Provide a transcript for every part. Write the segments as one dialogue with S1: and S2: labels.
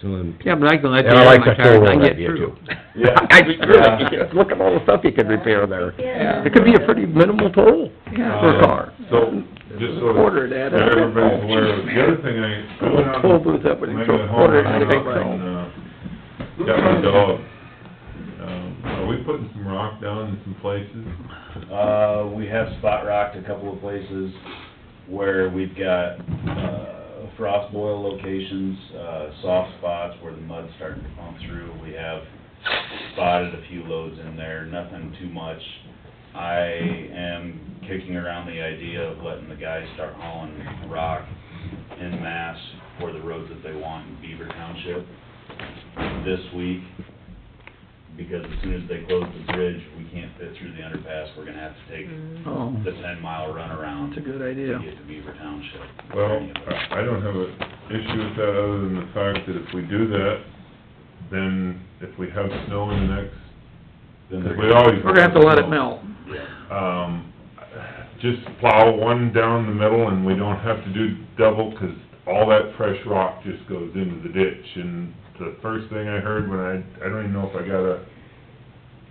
S1: So, um,
S2: Yeah, but I can let you
S3: And I
S2: have
S3: like
S2: my
S3: that
S2: car and
S3: four-wheel
S2: I can get
S3: idea
S2: through.
S3: too.
S4: Yeah.
S3: I just really,
S4: Yeah.
S3: because look at all the stuff you could repair there.
S5: Yeah.
S3: It could be a pretty minimal total for a
S4: Uh,
S3: car.
S4: So, just so
S3: Quarter of that,
S4: that
S3: I think.
S4: everybody's aware, of- the other thing I, I went on,
S3: Toll booth up with a
S4: maybe
S3: quarter
S4: at home, I went
S3: of that, I think.
S4: out and, uh, got my dog. Um, are we putting some rock down in some places?
S6: Uh, we have spot rocked a couple of places where we've got, uh, frost boil locations, uh, soft spots where the mud's starting to pump through. We have spotted a few loads in there, nothing too much. I am kicking around the idea of letting the guys start hauling rock en masse for the roads that they want in Beaver Township this week because as soon as they close the bridge, we can't fit through the underpass, we're gonna have to take
S3: Oh,
S6: the ten mile runaround
S3: that's a
S6: to
S3: good idea.
S6: get to Beaver Township.
S4: Well, uh, I I don't have an issue with that other than the fact that if we do that, then if we have snow in the next,
S6: Then
S4: because
S6: they're
S4: we always.
S3: We're gonna have to let it melt.
S4: um, just plow one down the middle and we don't have to do double, 'cause all that fresh rock just goes into the ditch. And the first thing I heard when I, I don't even know if I got a,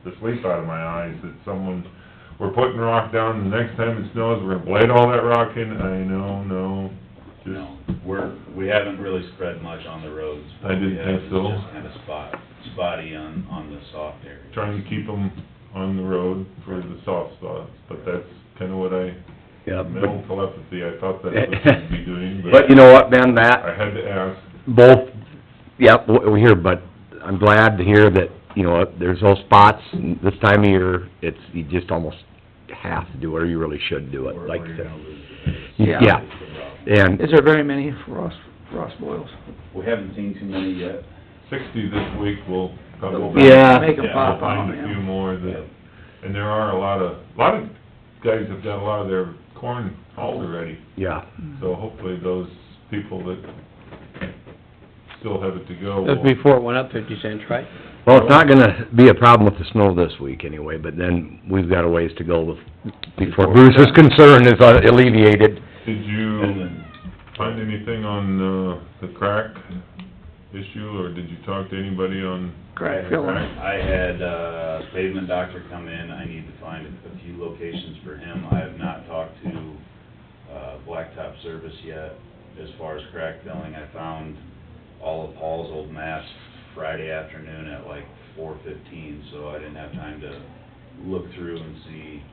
S4: the sleep out of my eyes, that someone, we're putting rock down, the next time it snows, we're gonna blade all that rock in, I know, no, just,
S6: No, we're, we haven't really spread much on the roads.
S4: I didn't think so.
S6: It's just kinda spot, spotty on, on the soft area.
S4: trying to keep them on the road for the soft spots, but that's kinda what I,
S3: Yeah,
S4: mental telepathy, I thought that's what we'd be doing,
S3: But you know what, Ben, that,
S4: I had to ask,
S3: both, yeah, we're here, but I'm glad to hear that, you know, there's those spots, and this time of year, it's, you just almost have to do it, or you really should do it,
S6: We're-
S3: like,
S6: we're
S3: the-
S6: gonna lose it.
S3: yeah.
S6: It's the problem.
S3: And,
S2: Is there very many frost, frost boils?
S6: We haven't seen too many yet.
S4: sixty this week will probably.
S3: yeah,
S2: Make them
S6: Yeah,
S4: We'll
S2: pop out,
S4: find a few
S2: yeah.
S4: more that, and there are a lot of, a lot of guys have got a lot of their corn hauled already,
S3: yeah,
S4: so
S6: Mm-hmm.
S4: hopefully those people that still have it to go
S7: That's
S4: will.
S7: before it went up fifty cents, right?
S3: well, it's not gonna be a problem with the snow this week anyway, but then we've got a ways to go with, before Bruce's concern is alleviated.
S4: Did
S6: And
S4: you
S6: then,
S4: find anything on, uh, the crack issue, or did you talk to anybody on?
S2: Crack filling.
S6: I had uh pavement doctor come in, I need to find a few locations for him. I have not talked to uh Blacktop Service yet as far as crack filling. I found all of Paul's old maps Friday afternoon at like four fifteen, so I didn't have time to look through and see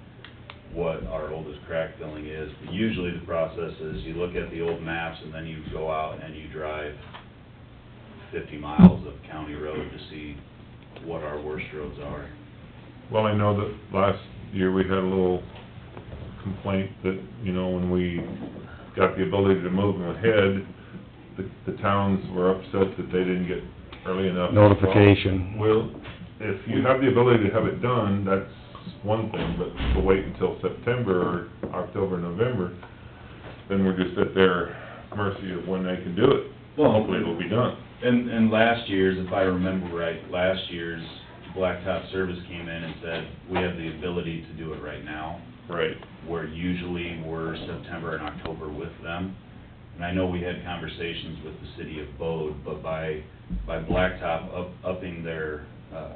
S6: what our oldest crack filling is. But Usually the process is you look at the old maps and then you go out and you drive fifty miles of county road to see what our worst roads are.
S4: Well, I know that last year we had a little complaint that, you know, when we got the ability to move them ahead, the, the towns were upset that they didn't get early enough.
S3: Notification.
S4: Well, if you have the ability to have it done, that's one thing, but to wait until September or October, November, then we're just at their mercy of when they can do it.
S6: Well-
S4: Hopefully it'll be done.
S6: And, and last year's, if I remember right, last year's Blacktop Service came in and said, we have the ability to do it right now,
S4: Right.
S6: where usually we're September and October with them. And I know we had conversations with the city of Bode, but by, by Blacktop up, upping their, uh,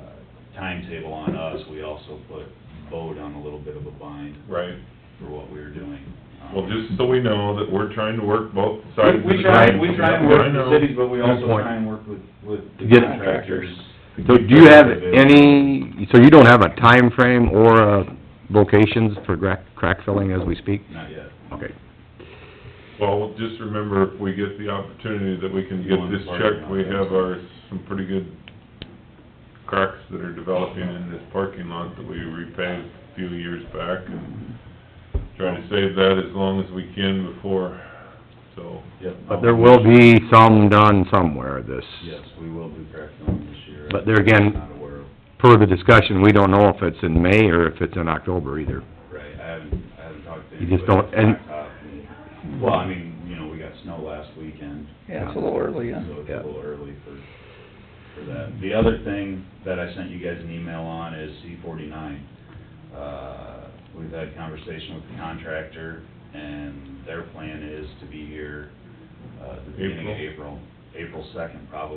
S6: timetable on us, we also put Bode on a little bit of a bind
S4: Right.
S6: for what we were doing. Um,
S4: Well, just so we know that we're trying to work both sides of the...
S6: We, we try, we
S4: coin.
S6: try and
S4: Yeah, I
S6: work
S4: know.
S6: with the cities, but we
S3: Good
S6: also
S3: point.
S6: try and work with, with the
S3: Get-
S6: contractors.
S3: So do you have any, so you don't have a time frame or, uh, locations for crack, crack filling as we speak?
S6: Not yet.
S3: Okay.
S4: Well, just remember, if we get the opportunity that we can get this checked, we have our, some pretty good cracks that are developing in this parking lot that we repaved a few years back, and try to save that as long as we can before, so.
S6: Yep.
S3: But there will be some done somewhere this,
S6: Yes, we will do crack filling this year.
S3: But there again-
S6: Not aware of,
S3: per the discussion, we don't know if it's in May or if it's in October either.
S6: right, I haven't, I haven't talked to
S3: You
S6: anybody.
S3: just don't-
S6: at
S3: and-
S6: Blacktop and- Well, I mean, you know, we got snow last weekend,
S2: Yeah, it's a little early,
S6: so
S2: yeah.
S6: it's a
S3: Yeah.
S6: little early for, for that. The other thing that I sent you guys an email on is C forty-nine. Uh, we've had a conversation with the contractor, and their plan is to be here, uh, at the beginning of April, April second probably.